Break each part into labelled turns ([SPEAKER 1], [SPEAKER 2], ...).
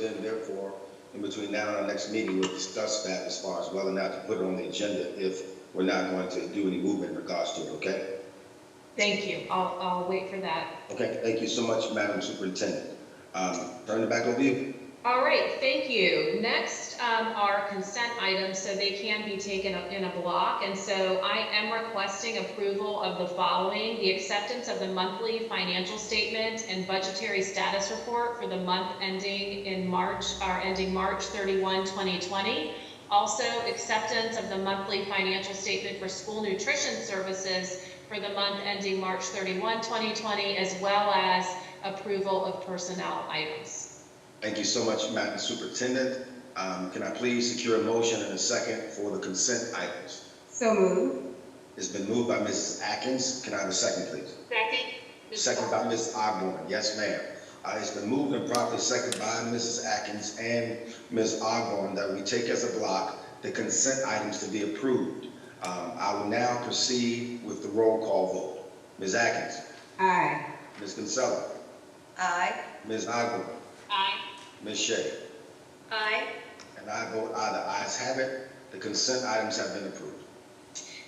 [SPEAKER 1] Then therefore, in between now and our next meeting, we'll discuss that as far as whether or not to put it on the agenda if we're not going to do any movement in regards to it, okay?
[SPEAKER 2] Thank you. I'll, I'll wait for that.
[SPEAKER 1] Okay, thank you so much, Madam Superintendent. Um, turn it back over to you.
[SPEAKER 2] All right, thank you. Next um, are consent items, so they can be taken up in a block. And so I am requesting approval of the following, the acceptance of the monthly financial statement and budgetary status report for the month ending in March, or ending March 31, 2020. Also, acceptance of the monthly financial statement for school nutrition services for the month ending March 31, 2020, as well as approval of personnel items.
[SPEAKER 1] Thank you so much, Madam Superintendent. Um, can I please secure a motion and a second for the consent items?
[SPEAKER 3] So moved.
[SPEAKER 1] It's been moved by Mrs. Atkins. Can I have a second, please?
[SPEAKER 2] Second.
[SPEAKER 1] Second by Ms. Osborne, yes, ma'am. Uh, it's been moved and properly seconded by Mrs. Atkins and Ms. Osborne that we take as a block the consent items to be approved. Um, I will now proceed with the roll call vote. Ms. Atkins,
[SPEAKER 3] Aye.
[SPEAKER 1] Ms. Kinsella,
[SPEAKER 3] Aye.
[SPEAKER 1] Ms. Osborne,
[SPEAKER 2] Aye.
[SPEAKER 1] Ms. Shea,
[SPEAKER 2] Aye.
[SPEAKER 1] and I vote aye. The ayes have it. The consent items have been approved.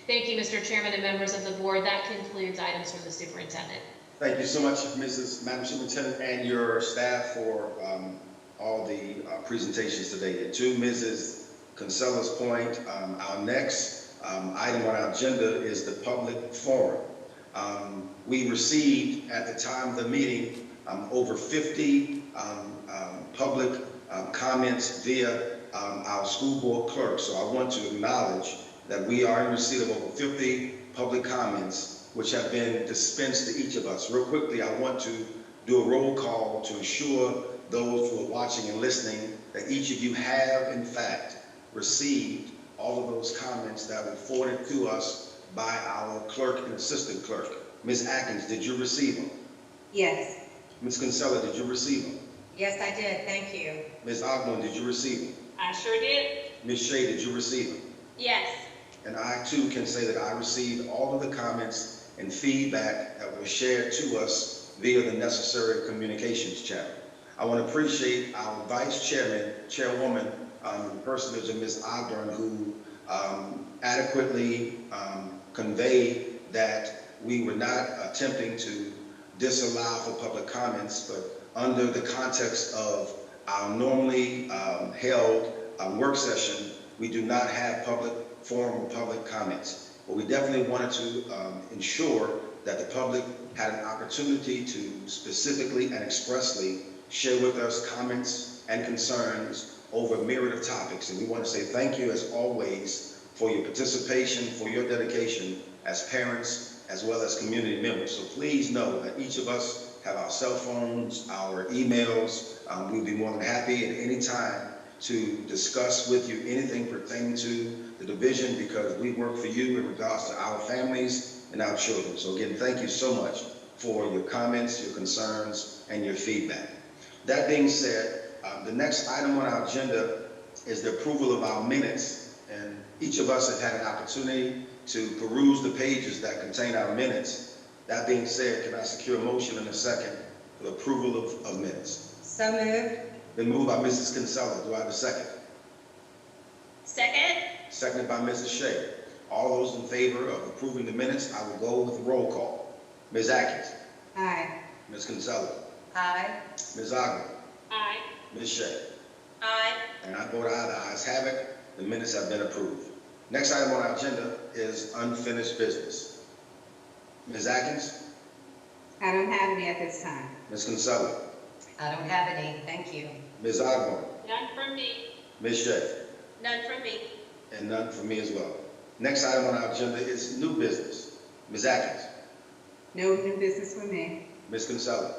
[SPEAKER 2] Thank you, Mr. Chairman and members of the board. That concludes items from the superintendent.
[SPEAKER 1] Thank you so much, Mrs. Madam Superintendent, and your staff for um, all the uh, presentations today. And to Mrs. Kinsella's point, um, our next um, item on our agenda is the public forum. Um, We received, at the time of the meeting, um, over 50 um, um, public um, comments via um, our school board clerk. So I want to acknowledge that we are in receipt of over 50 public comments, which have been dispensed to each of us. Real quickly, I want to do a roll call to ensure those who are watching and listening that each of you have, in fact, received all of those comments that were forwarded to us by our clerk and assistant clerk. Ms. Atkins, did you receive them?
[SPEAKER 3] Yes.
[SPEAKER 1] Ms. Kinsella, did you receive them?
[SPEAKER 3] Yes, I did, thank you.
[SPEAKER 1] Ms. Ogden, did you receive them?
[SPEAKER 2] I sure did.
[SPEAKER 1] Ms. Shea, did you receive them?
[SPEAKER 2] Yes.
[SPEAKER 1] And I too can say that I received all of the comments and feedback that were shared to us via the necessary communications channel. I want to appreciate our vice chairman, chairwoman, um, personage of Ms. Ogden, who um, adequately um, conveyed that we were not attempting to disallow for public comments, but under the context of our normally um, held uh, work session, we do not have public forum or public comments. But we definitely wanted to um, ensure that the public had an opportunity to specifically and expressly share with us comments and concerns over a myriad of topics. And we want to say thank you, as always, for your participation, for your dedication as parents, as well as community members. So please know that each of us have our cell phones, our emails. Um, We'd be more than happy at any time to discuss with you anything pertaining to the division because we work for you in regards to our families and our children. So again, thank you so much for your comments, your concerns, and your feedback. That being said, uh, the next item on our agenda is the approval of our minutes. And each of us have had an opportunity to peruse the pages that contain our minutes. That being said, can I secure a motion in a second for the approval of, of minutes?
[SPEAKER 3] So moved.
[SPEAKER 1] Been moved by Mrs. Kinsella. Do I have a second?
[SPEAKER 2] Second.
[SPEAKER 1] Seconded by Mrs. Shea. All those in favor of approving the minutes, I will go with roll call. Ms. Atkins,
[SPEAKER 3] Aye.
[SPEAKER 1] Ms. Kinsella,
[SPEAKER 3] Aye.
[SPEAKER 1] Ms. Ogden,
[SPEAKER 2] Aye.
[SPEAKER 1] Ms. Shea.
[SPEAKER 2] Aye.
[SPEAKER 1] And I vote aye, the ayes have it, the minutes have been approved. Next item on our agenda is unfinished business. Ms. Atkins,
[SPEAKER 3] I don't have any at this time.
[SPEAKER 1] Ms. Kinsella,
[SPEAKER 3] I don't have any, thank you.
[SPEAKER 1] Ms. Ogden,
[SPEAKER 2] None from me.
[SPEAKER 1] Ms. Shea.
[SPEAKER 2] None from me.
[SPEAKER 1] And none for me as well. Next item on our agenda is new business. Ms. Atkins,
[SPEAKER 3] No new business for me.
[SPEAKER 1] Ms. Kinsella,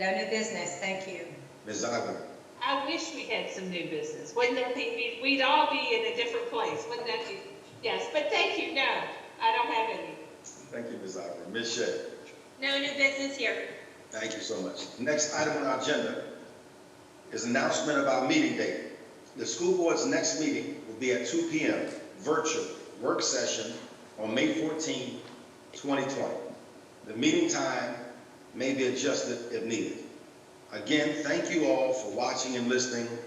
[SPEAKER 3] No new business, thank you.
[SPEAKER 1] Ms. Ogden,
[SPEAKER 4] I wish we had some new business. Wouldn't that be, we'd all be in a different place, wouldn't that be? Yes, but thank you, no, I don't have any.
[SPEAKER 1] Thank you, Ms. Ogden. Ms. Shea,
[SPEAKER 2] No new business here.
[SPEAKER 1] thank you so much. Next item on our agenda is announcement of our meeting date. The school board's next meeting will be at 2 PM, virtual work session on May 14, 2020. The meeting time may be adjusted if needed. Again, thank you all for watching and listening.